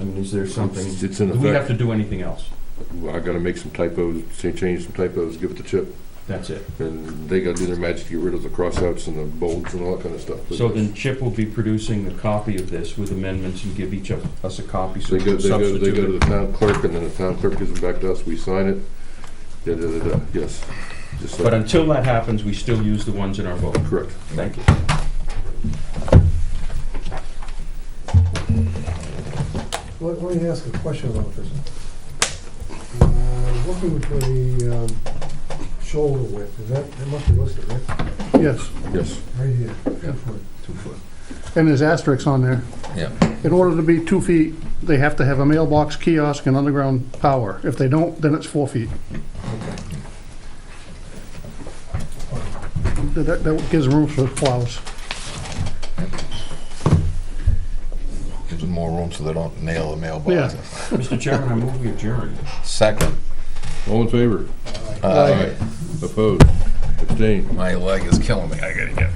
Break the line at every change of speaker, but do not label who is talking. I mean, is there something,
It's it's in
Do we have
effect,
to do anything else?
I gotta make some typos, say change some typos, give it to Chip,
That's it.
and they gotta do their magic to get rid of the crossouts and the bolds and all that kinda stuff.
So then Chip will be producing a copy of this with amendments and give each of us a copy so
They
we
go,
can
they go, they go to
substitute
the
it.
town clerk, and then the town clerk gives it back to us, we sign it, da, da, da, da, yes. Just
But
like,
until that happens, we still use the ones in our vote.
correct.
Thank you.
Let, let me ask a question about this. Uh, Looking for the um, shoulder width, is that, that must be listed, right?
Yes,
Yes,
Right here, two foot.
two foot?
and there's asterisks on there.
Yeah.
In order to be two feet, they have to have a mailbox, kiosk, and underground power. If they don't, then it's four feet. That, that gives room for plows.
Gives them more room so they don't nail the mailbox.
Yeah.
Mr. Chairman, I move we adjourn.
Second,
all in favor?
uh,
Opposed? Abstained?
my leg is killing me. I gotta get.